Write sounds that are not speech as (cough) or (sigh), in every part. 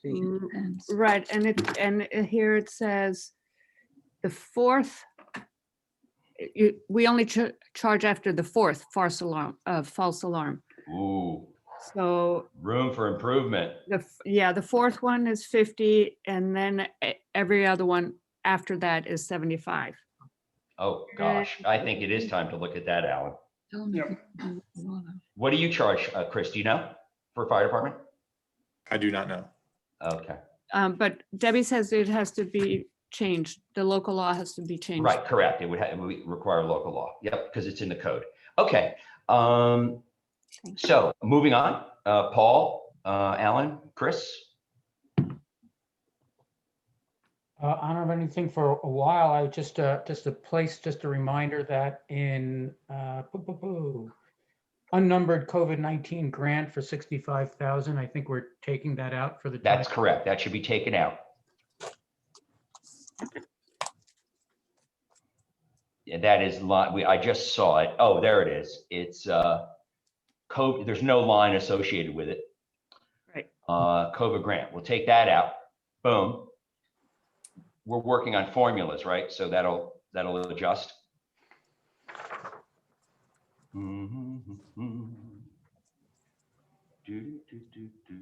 feet. Mm, Depends. Right, and it, and it- here it says the fourth. You, we only cha- charge after the fourth false alarm, uh, false alarm. Ooh, So room for improvement. the, f- yeah, the fourth one is fifty and then e- every other one after that is seventy-five. Oh, gosh, I think it is time to look at that, Alan. Tell them if Yep. we can do it tomorrow. What do you charge, uh, Chris? Do you know for fire department? I do not know. Okay, Um, but Debbie says it has to be changed. The local law has to be changed. right, correct. It would ha- it would require local law. Yep, because it's in the code. Okay, um, Thank so moving on, uh, Paul, uh, Alan, Chris. Uh, I don't have anything for a while. I just, uh, just a place, just a reminder that in, uh, boo, boo, boo, unnumbered COVID-19 grant for 65,000. I think we're taking that out for the. That's time. correct. That should be taken out. Yeah, that is line, we, I just saw it. Oh, there it is. It's, uh, code, there's no line associated with it. Right. Uh, COVID grant. We'll take that out. Boom. We're working on formulas, right? So that'll, that'll adjust. Do, Mm-hmm, do, do, do.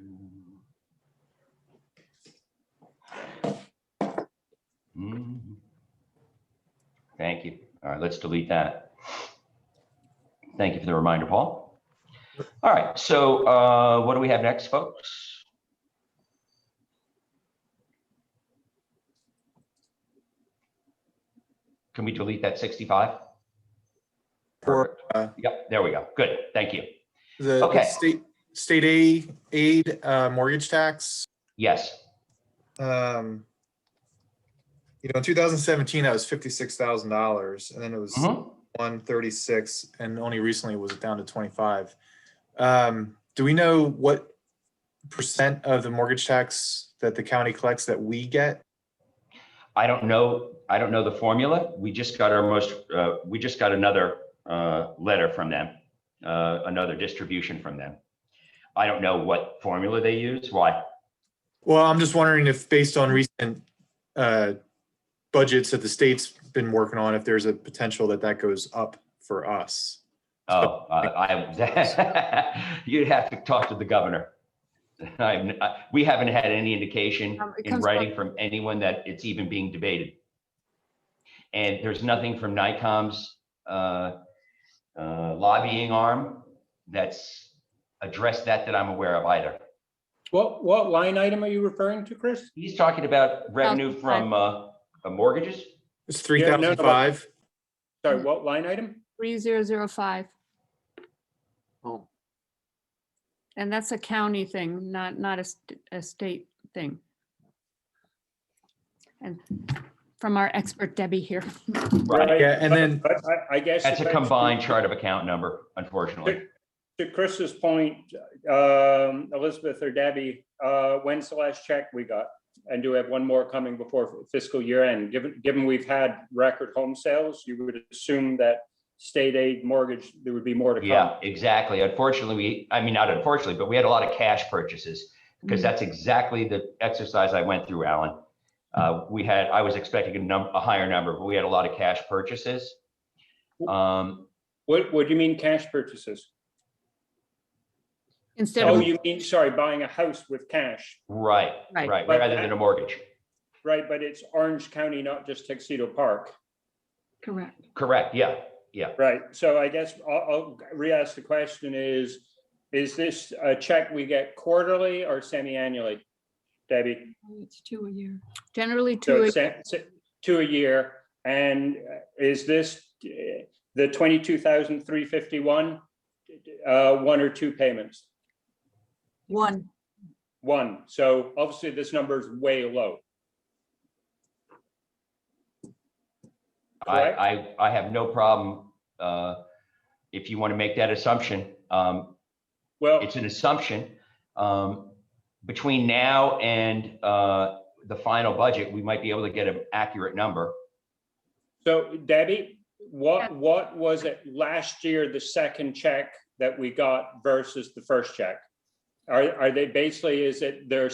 Mhm. Thank you. All right, let's delete that. Thank you for the reminder, Paul. All right, so uh, what do we have next, folks? Can we delete that 65? Or, uh, Yep, there we go. Good, thank you. the the Okay. state, state aid, aid, uh, mortgage tax. Yes, Um, you know, in 2017, that was $56,000 and then it was Mhm. 136 and only recently was it down to 25. Um, do we know what percent of the mortgage tax that the county collects that we get? I don't know, I don't know the formula. We just got our most, uh, we just got another uh, letter from them, uh, another distribution from them. I don't know what formula they use, why. Well, I'm just wondering if based on recent, uh, budgets that the state's been working on, if there's a potential that that goes up for us. (laughs) Oh, uh, I, (laughs) you'd have to talk to the governor. (laughs) I'm- I- We haven't had any indication Um, it in comes from- writing from anyone that it's even being debated. And there's nothing from NICOM's uh, uh, lobbying arm that's addressed that that I'm aware of either. What, what line item are you referring to, Chris? He's talking about revenue Outside. from uh, uh, mortgages? It's three Yeah, no, no, thousand but- five. Sorry, what line item? Three zero zero five. Oh. And that's a county thing, not, not a, st- a state thing. And from our expert Debbie here. Right. Yeah, and then- But I, I guess. That's a if combined chart of account number, unfortunately. To Chris's point, um, Elizabeth or Debbie, uh, when's the last check we got? And do we have one more coming before fiscal year end? Given, given we've had record home sales, you would assume that state aid mortgage, there would be more to come. Yeah, exactly. Unfortunately, we, I mean, not unfortunately, but we had a lot of cash purchases because that's exactly the exercise I went through, Alan. Uh, We had, I was expecting a num, a higher number, but we had a lot of cash purchases. Um, What, what do you mean cash purchases? Instead Oh, of, you mean, sorry, buying a house with cash, Right, Right. right, rather than a mortgage. right? But it's Orange County, not just Tuxedo Park. Correct. Correct, yeah. Right, so I guess I'll, I'll re-ask the question is, is this a check we get quarterly or semi-annually? Debbie, It's two a year. generally so two, it's se- se- two a year, and uh, is this uh, the twenty-two thousand three fifty-one? Uh, one or two payments? One. One, so obviously this number is way low. I, Correct. I, I have no problem, uh, if you want to make that assumption. Um, Well, it's an assumption. Um, between now and, uh, the final budget, we might be able to get an accurate number. so Debbie, what, Yeah. what was it last year, the second check that we got versus the first check? Are, are they basically, is it their